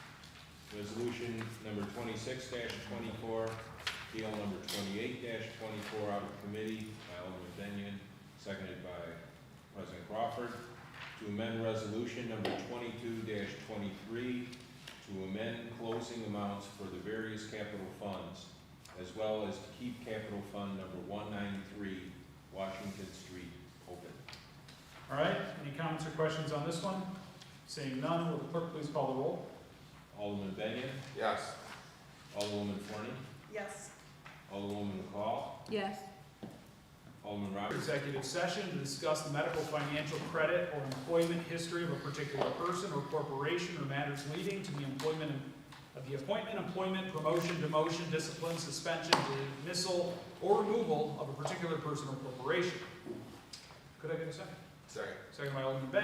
Resolution number twenty-six twenty-four, PL number twenty-eight twenty-four out of committee by Alderman Benyon, seconded by President Crawford, to amend resolution number twenty-two twenty-three to amend closing amounts for the various capital funds, as well as to keep capital fund number one ninety-three, Washington Street, open. All right, any comments or questions on this one? Seeing none, will the clerk please call the roll? Alderman Benyon, Yes. Alderwoman Forney, Yes. Alderwoman McCall, Yes. Alderman Roberts, Executive session to discuss the medical, financial credit, or employment history of a particular person or corporation or matters leading to the employment of the appointment, employment, promotion, demotion, discipline, suspension, dismissal, or removal of a particular person or corporation. Could I get a second? Second. Second by Alderman Benyon.